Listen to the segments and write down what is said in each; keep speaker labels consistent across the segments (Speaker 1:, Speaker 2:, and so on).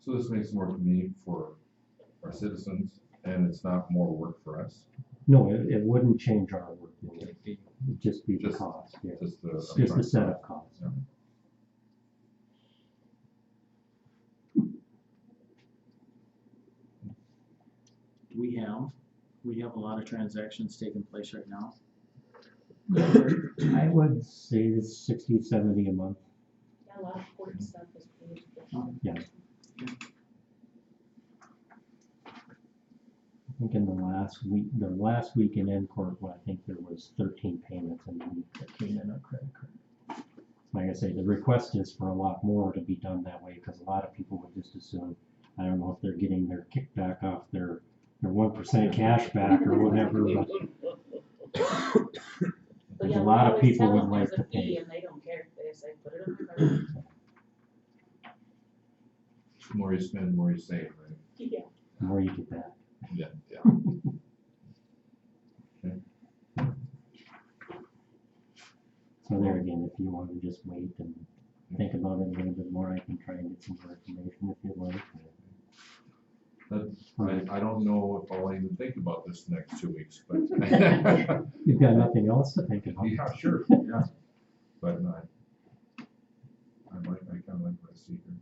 Speaker 1: So this makes more convenient for our citizens and it's not more work for us,
Speaker 2: No, it, it wouldn't change our work, it would just be the
Speaker 1: Just-
Speaker 2: cost, yeah,
Speaker 1: just the.
Speaker 2: just the setup cost.
Speaker 1: Yeah.
Speaker 3: we have, we have a lot of transactions taking place right now.
Speaker 2: I would say it's sixty, seventy a month,
Speaker 4: Yeah, a lot of important stuff is paid.
Speaker 2: I think in the last week, the last week in Encore, well, I think there was thirteen payments in the week that came in on credit card. Like I say, the request is for a lot more to be done that way, because a lot of people would just assume, I don't know if they're getting their kickback off their, their one percent cash back or whatever, but
Speaker 4: But
Speaker 2: There's
Speaker 4: yeah,
Speaker 2: a
Speaker 4: we
Speaker 2: lot of
Speaker 4: always
Speaker 2: people
Speaker 4: tell
Speaker 2: would
Speaker 4: them
Speaker 2: like
Speaker 4: there's a
Speaker 2: to pay.
Speaker 4: fee And they don't care, they just say, put it on my card.
Speaker 1: The More you spend, more you save, right?
Speaker 4: Yeah.
Speaker 2: the more you get back.
Speaker 1: Yeah, yeah.
Speaker 2: So there again, if you want to just wait and think about it a little bit more, I can try and get some more information if you'd like.
Speaker 1: That's,
Speaker 2: Right.
Speaker 1: I, I don't know if I'll even think about this next two weeks, but.
Speaker 2: You've got nothing else to think about.
Speaker 1: Yeah, sure, yeah, but I, I like, I kinda like what I see here.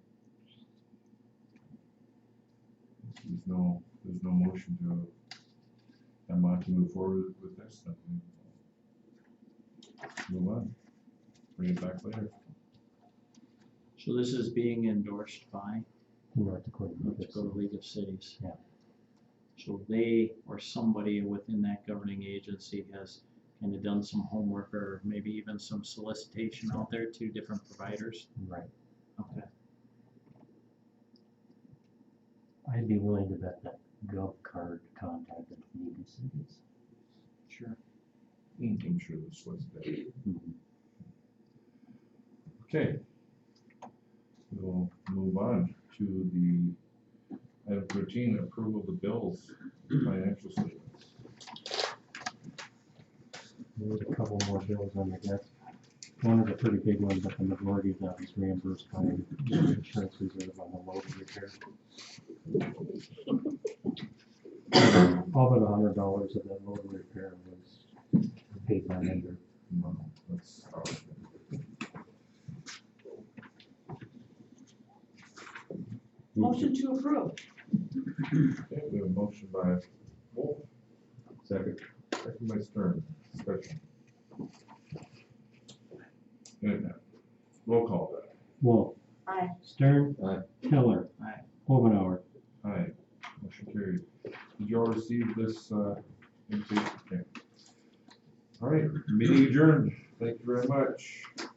Speaker 1: There's no, there's no motion to, I'm not to move forward with this, then we move on, bring it back later.
Speaker 3: So this is being endorsed by
Speaker 2: North Dakota.
Speaker 3: North Dakota League of Cities.
Speaker 2: Yeah.
Speaker 3: So they or somebody within that governing agency has kind of done some homework or maybe even some solicitation out there to different providers.
Speaker 2: Right.
Speaker 3: Okay.
Speaker 2: I'd be willing to bet that Gov card contacted League of Cities.
Speaker 3: Sure.
Speaker 1: I'm sure this was there. Okay. We'll move on to the item thirteen, approval of the bills, financial statements.
Speaker 2: There's a couple more bills on the desk. One is a pretty big one, but the majority of that is reimbursed by the insurance reserve on the load repair. All but a hundred dollars of that load repair was paid by vendor.
Speaker 1: No, that's, uh,
Speaker 4: Motion to approve.
Speaker 1: okay, we have a motion by Wolf, second, second by Stern, discussion. Good now. Roll call that.
Speaker 2: Wolf.
Speaker 4: Aye.
Speaker 2: Stern.
Speaker 1: Aye.
Speaker 2: Keller.
Speaker 3: Aye.
Speaker 2: Omenauer.
Speaker 1: Aye, motion carried. Did you all receive this, uh, intake? Okay. All right, meeting adjourned. Thank you very much.